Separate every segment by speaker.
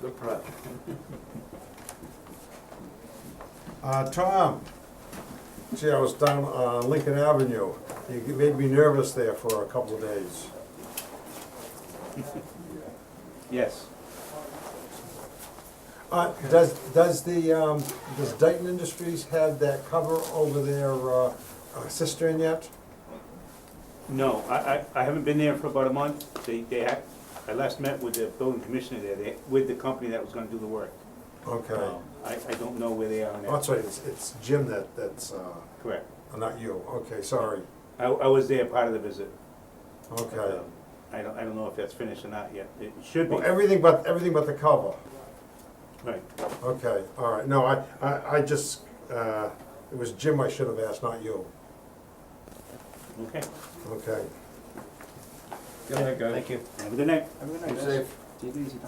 Speaker 1: Good project.
Speaker 2: Uh, Tom, see, I was down uh, Lincoln Avenue. You made me nervous there for a couple of days.
Speaker 1: Yes.
Speaker 2: Uh, does, does the, um, does Dayton Industries have that cover over their, uh, uh, cistern yet?
Speaker 1: No, I, I, I haven't been there for about a month. They, they, ha- I last met with the building commissioner there, they, with the company that was gonna do the work.
Speaker 2: Okay.
Speaker 1: Um, I, I don't know where they are
Speaker 2: Oh,
Speaker 1: now.
Speaker 2: That's right, it's, it's Jim that, that's, uh,
Speaker 1: Correct.
Speaker 2: not you. Okay, sorry.
Speaker 1: I, I was there part of the visit.
Speaker 2: Okay.
Speaker 1: Um, I don't, I don't know if that's finished or not yet. It should be,
Speaker 2: Well, everything but, everything but the cover.
Speaker 1: right.
Speaker 2: Okay, all right. No, I, I, I just, uh, it was Jim I should have asked, not you.
Speaker 1: Okay.
Speaker 2: Okay.
Speaker 3: Good night, guys. Thank you.
Speaker 1: Have a good night.
Speaker 3: Have a good
Speaker 4: Be
Speaker 3: night, guys.
Speaker 4: safe.
Speaker 3: Take it easy,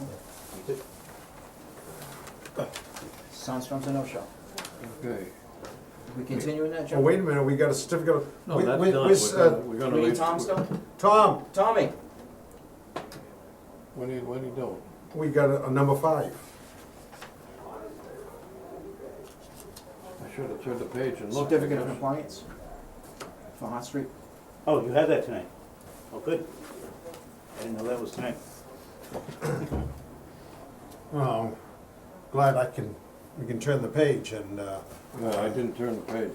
Speaker 3: Tom. Sandstorm's a no-show.
Speaker 4: Okay.
Speaker 3: We continuing that,
Speaker 2: Well,
Speaker 3: Joe?
Speaker 2: Oh, wait a minute, we got a certificate of.
Speaker 4: No,
Speaker 2: we-
Speaker 4: that's
Speaker 2: we-
Speaker 4: done.
Speaker 2: we s-
Speaker 4: We're
Speaker 2: uh,
Speaker 4: gonna- Oh, We're gonna
Speaker 3: We need
Speaker 4: leave.
Speaker 3: Tom still?
Speaker 2: Tom,
Speaker 3: Tommy,
Speaker 4: When do you, when do you do it?
Speaker 2: we got a, a number five.
Speaker 4: I should have turned the page and looked.
Speaker 3: certificate of compliance for Hot Street.
Speaker 1: Oh, you had that tonight? Oh, good. I didn't know that was tonight.
Speaker 2: Well, glad I can, we can turn the page and, uh,
Speaker 4: No, I didn't turn the page.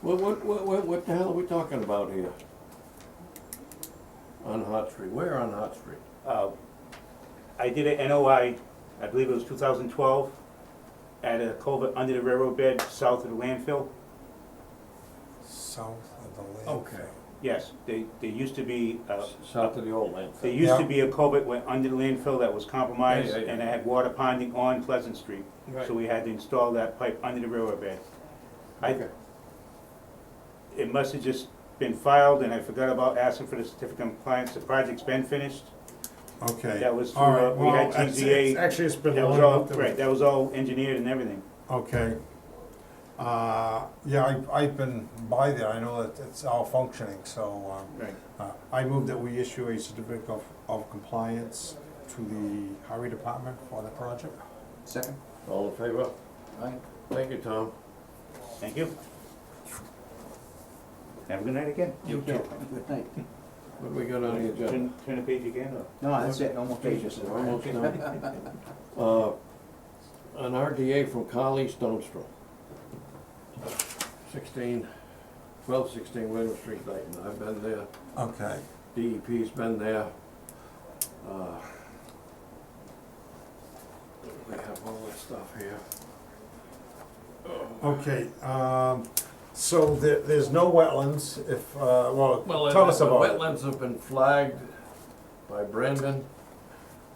Speaker 4: What, what, what, what, what the hell are we talking about here? On Hot Street, where on Hot Street?
Speaker 1: Uh, I did an NOI, I believe it was 2012, at a culvert under the railroad bed south of the landfill.
Speaker 2: south of the landfill.
Speaker 4: Okay.
Speaker 1: Yes, they, there used to be, uh,
Speaker 4: S- South of the old landfill.
Speaker 1: there used to
Speaker 2: Yeah.
Speaker 1: be a culvert went under the landfill that was compromised,
Speaker 4: Yeah, yeah, yeah.
Speaker 1: and it had water ponding on Pleasant Street.
Speaker 4: Right.
Speaker 1: So we had to install that pipe under the railroad bed. I,
Speaker 4: Okay.
Speaker 1: it must have just been filed, and I forgot about asking for the certificate of compliance. The project's been finished.
Speaker 2: Okay.
Speaker 1: That was
Speaker 2: All
Speaker 1: through, uh,
Speaker 2: right,
Speaker 1: we had
Speaker 2: well, it's-
Speaker 1: TZA.
Speaker 2: it's- Actually, it's been
Speaker 1: That was
Speaker 2: long
Speaker 1: all,
Speaker 2: enough. that we-
Speaker 1: right, that was all engineered and everything.
Speaker 2: Okay. Uh, yeah, I, I've been by there, I know that it's all functioning, so, um,
Speaker 1: Right.
Speaker 2: Uh, I move that we issue a certificate of, of compliance to the highway department for the project.
Speaker 3: Second.
Speaker 4: All in favor?
Speaker 3: Aye.
Speaker 4: Thank you, Tom.
Speaker 1: Thank you. Have a good night again.
Speaker 3: You too. Good night.
Speaker 4: What do we got on the agenda?
Speaker 1: Turn, turn the page again, or?
Speaker 3: No, that's it, no more pages.
Speaker 4: We're Almost done. Uh, An RDA from E. Carly Stonestrom. Sixteen, twelve sixteen William Street, Dayton. I've been there.
Speaker 2: Okay.
Speaker 4: DEP's been there. Uh, We have all that stuff here.
Speaker 2: Okay, um, so there, there's no wetlands if, uh, well, tell us about it.
Speaker 4: Well, the wetlands have been flagged by Brendan.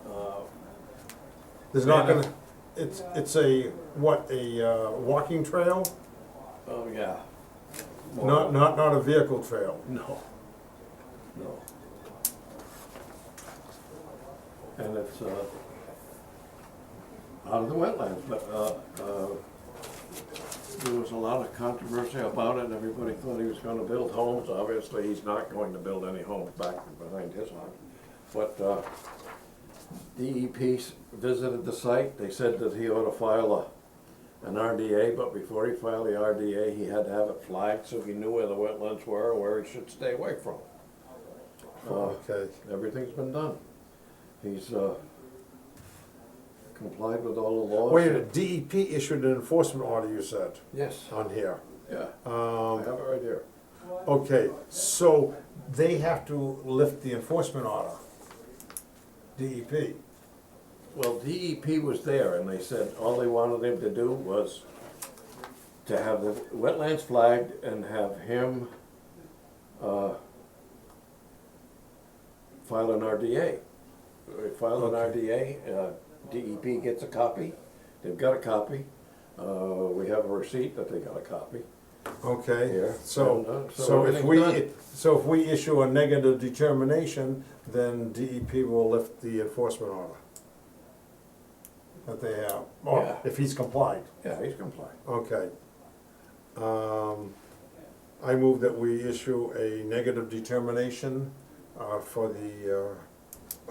Speaker 4: Uh,
Speaker 2: There's not gonna, it's, it's a, what, a, uh, walking trail?
Speaker 4: Oh, yeah.
Speaker 2: Not, not, not a vehicle trail.
Speaker 4: No. No. And it's, uh, out of the wetlands, but, uh, uh, there was a lot of controversy about it, and everybody thought he was gonna build homes, obviously, he's not going to build any homes back behind his house. But, uh, DEP s- visited the site, they said that he ought to file a, an RDA, but before he filed the RDA, he had to have it flagged so he knew where the wetlands were and where he should stay away from. Uh,
Speaker 2: Okay,
Speaker 4: Everything's been done. He's uh, complied with all the laws.
Speaker 2: wait, a minute, DEP issued an enforcement order, you said,
Speaker 4: Yes,
Speaker 2: on here.
Speaker 4: yeah, I
Speaker 2: Um,
Speaker 4: have it right here.
Speaker 2: Okay, so they have to lift the enforcement order, E DEP.
Speaker 4: Well, DEP was there and they said all they wanted him to do was to have the wetlands flagged and have him uh, file an RDA. Uh, File an RDA, uh, DEP gets a copy, they've got a copy. Uh, We have a receipt that they got a copy.
Speaker 2: Okay,
Speaker 4: Yeah.
Speaker 2: so,
Speaker 4: And, uh, so
Speaker 2: so if
Speaker 4: everything's
Speaker 2: we,
Speaker 4: done.
Speaker 2: so if we issue a negative determination, then DEP will lift the enforcement order that they have,
Speaker 4: Yeah.
Speaker 2: or if he's complied,
Speaker 4: Yeah, he's compliant.
Speaker 2: okay. Um, I move that we issue a negative determination uh, for the